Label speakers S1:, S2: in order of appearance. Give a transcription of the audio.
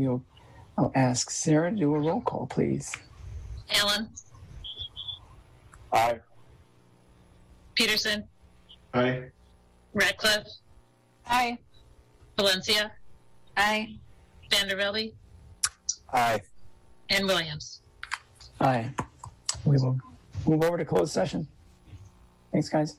S1: You'll, I'll ask Sarah to do a roll call, please.
S2: Allen,
S3: Aye.
S2: Peterson,
S3: Aye.
S2: Radcliffe,
S4: Aye.
S2: Valencia,
S4: Aye.
S2: Vanderbilt,
S3: Aye.
S2: and Williams.
S1: Aye. We will move over to closed session. Thanks, guys.